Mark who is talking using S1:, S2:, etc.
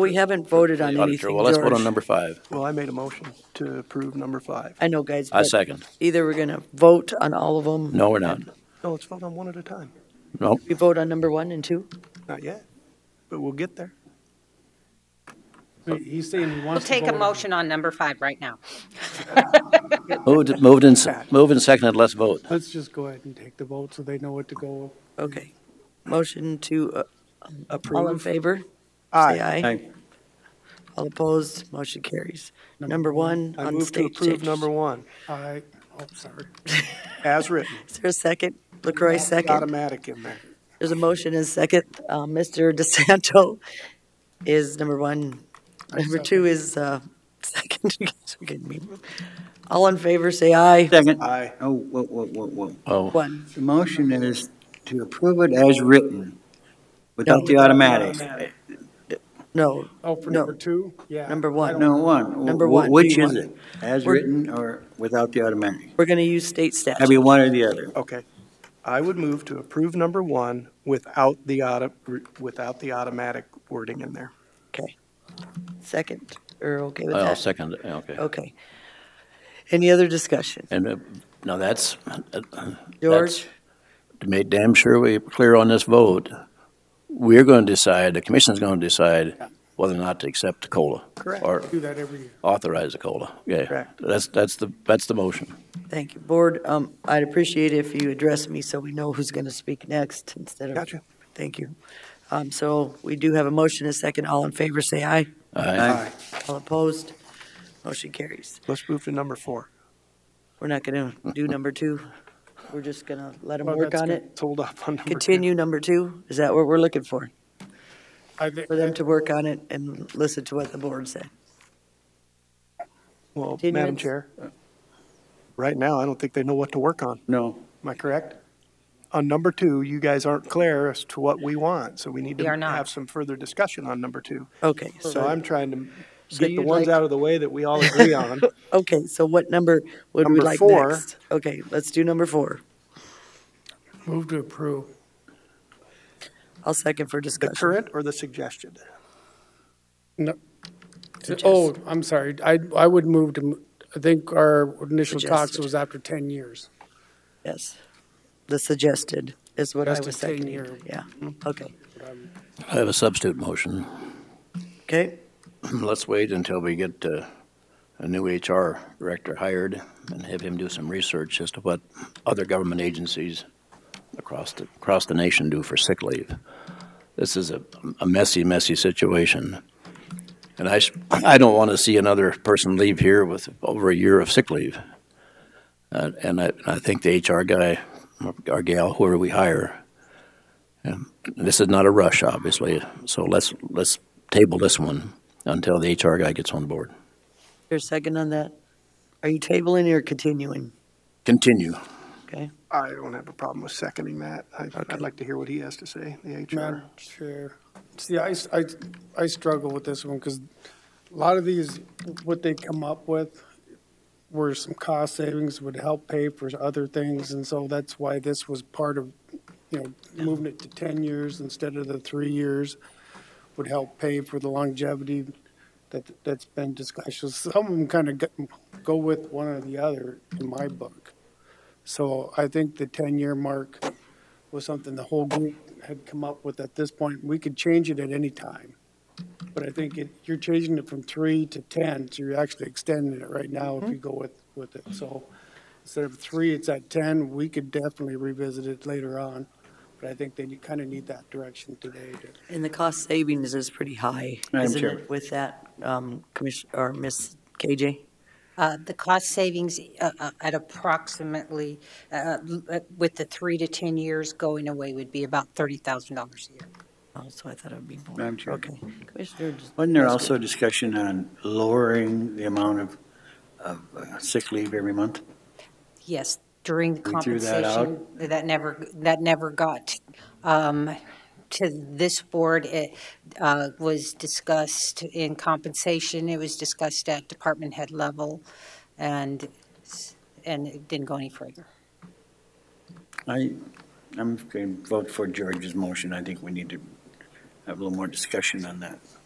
S1: We haven't voted on
S2: The auditor.
S1: anything,
S2: Well, let's vote on
S1: George.
S2: number five.
S3: Well, I made a motion to approve number five.
S1: I know, guys,
S2: I
S1: but
S2: second.
S1: either we're gonna vote on all of them.
S2: No, we're not.
S3: No, let's vote on one at a time.
S2: Nope.
S1: We vote on number one and two?
S3: Not yet, but we'll get there.
S4: Wait, He's saying he
S5: We'll
S4: wants to
S5: take a
S4: vote.
S5: motion on number five right now.
S2: Moved, moved and, s- moved and seconded, let's vote.
S4: Let's just go ahead and take the vote so they know what to go.
S1: Okay. Motion to, uh, all in
S3: Approve.
S1: favor? Say
S3: Aye.
S1: aye. All opposed, motion carries. Number one
S3: I
S1: on
S3: move to
S1: state
S3: approve
S1: changes.
S3: number one,
S4: I, oh, sorry.
S3: as written.
S1: Is there a second? LaCroy, second.
S3: Automatic in there.
S1: There's a motion and a second. Uh, Mr. DeSanto is number one. Number two is, uh, second. Forgive me. All in favor, say aye.
S6: Second.
S3: Aye.
S6: Oh, whoa, whoa, whoa, whoa.
S2: Oh,
S1: One.
S6: The motion is to approve it as written, without the automatics.
S1: No,
S4: Oh, for
S1: No.
S4: number two? Yeah.
S1: Number one.
S4: I don't-
S6: No, one.
S1: Number
S6: Wh-
S1: one, do
S6: Which
S1: you
S6: is
S1: want-
S6: it? As
S1: We're-
S6: written or without the automatic?
S1: we're gonna use state
S6: Have
S1: statute.
S6: you one or the other?
S3: Okay. I would move to approve number one without the auto, without the automatic wording in there.
S1: Second, or okay with
S2: I'll
S1: that? Oh.
S2: second, it. okay.
S1: Okay. Any other discussion?
S2: And uh, now that's, uh, that's,
S1: George?
S2: to make damn sure we're clear on this vote, we're going to decide, the commission's going to decide whether or not to accept the COLA.
S3: Correct.
S2: Or
S4: Do that every year.
S2: authorize the COLA. Yeah,
S3: Correct.
S2: that's, that's the, that's the motion.
S1: Thank you. Board, um, I'd appreciate if you address me so we know who's going to speak next instead of.
S3: Gotcha.
S1: Thank you. Um, so we do have a motion, and a second. All in favor, say aye.
S2: Aye.
S1: All opposed? Motion carries.
S3: Let's move to number four.
S1: We're not going to do number two. We're just going to let them
S4: Well,
S1: work
S4: that's
S1: on
S4: good.
S1: it.
S3: Let's hold up on number two.
S1: Continue number two. Is that what we're looking for?
S4: I thi-
S1: For them to work on it and listen to what the board said?
S3: Well, Madam
S1: Continuance.
S3: Chair, right now, I don't think they know what to work on.
S6: No.
S3: Am I correct? On number two, you guys aren't clear as to what we want, so we need to
S5: We are not.
S3: have some further discussion on number two.
S1: Okay,
S3: So
S1: so,
S3: I'm trying to
S1: So
S3: get the
S1: you'd
S3: ones
S1: like-
S3: out of the way that we all agree on.
S1: okay, so what number would we
S3: Number
S1: like
S3: four.
S1: next? Okay, let's do number four.
S4: Move to approve.
S1: I'll second for
S3: The
S1: discussion.
S3: current or the suggested?
S4: No. Oh, I'm sorry. I, I would move to, m- I think our initial talks
S1: Suggested.
S4: was after 10 years.
S1: Yes. The suggested is what I
S4: Suggested
S1: was
S4: thing
S1: seconding.
S4: here.
S1: Yeah, okay.
S2: I have a substitute motion.
S1: Okay,
S2: Let's wait until we get uh, a new HR director hired and have him do some research as to what other government agencies across the, across the nation do for sick leave. This is a a messy, messy situation. And I, sh- I don't want to see another person leave here with over a year of sick leave. Uh, And I, I think the HR guy, or gal, whoever we hire, um, this is not a rush, obviously, so let's, let's table this one until the HR guy gets on board.
S1: your second on that. Are you tabling or continuing?
S2: Continue.
S1: Okay,
S3: I don't have a problem with seconding that. I-
S1: Okay.
S3: I'd like to hear what he has to say, the HR.
S4: Madam Chair, see, I, s- I- I struggle with this one because a lot of these, what they come up with were some cost savings would help pay for other things. And so that's why this was part of, you know, moving it to 10 years instead of the three years would help pay for the longevity that, that's been discussed. So Some of them kind of go with one or the other in my book. So I think the 10-year mark was something the whole group had come up with at this point. We could change it at any time. But I think it, you're changing it from three to 10, so you're actually extending it right now if you go with, with it. So instead of three, it's at 10. We could definitely revisit it later on. But I think that you kind of need that direction today to
S1: and the cost savings is pretty high,
S6: Madam
S1: isn't
S6: Chair.
S1: it, with that, um, Commission, or Miss KJ?
S5: Uh, The cost savings uh, uh, at approximately, uh, l- with the three to 10 years going away, would be about $30,000 a year.
S1: Oh, so I thought it would be more.
S6: Madam Chair.
S1: Okay, Commissioner, just-
S6: Wasn't there also discussion on lowering the amount of, of uh, sick leave every month?
S5: Yes, during the
S6: We threw that
S5: compensation, that never, that never got um, to this board. It uh, was discussed in compensation, it was discussed at department head level, and, and it didn't go any further.
S6: I, I'm going to vote for George's motion. I think we need to have a little more discussion on that.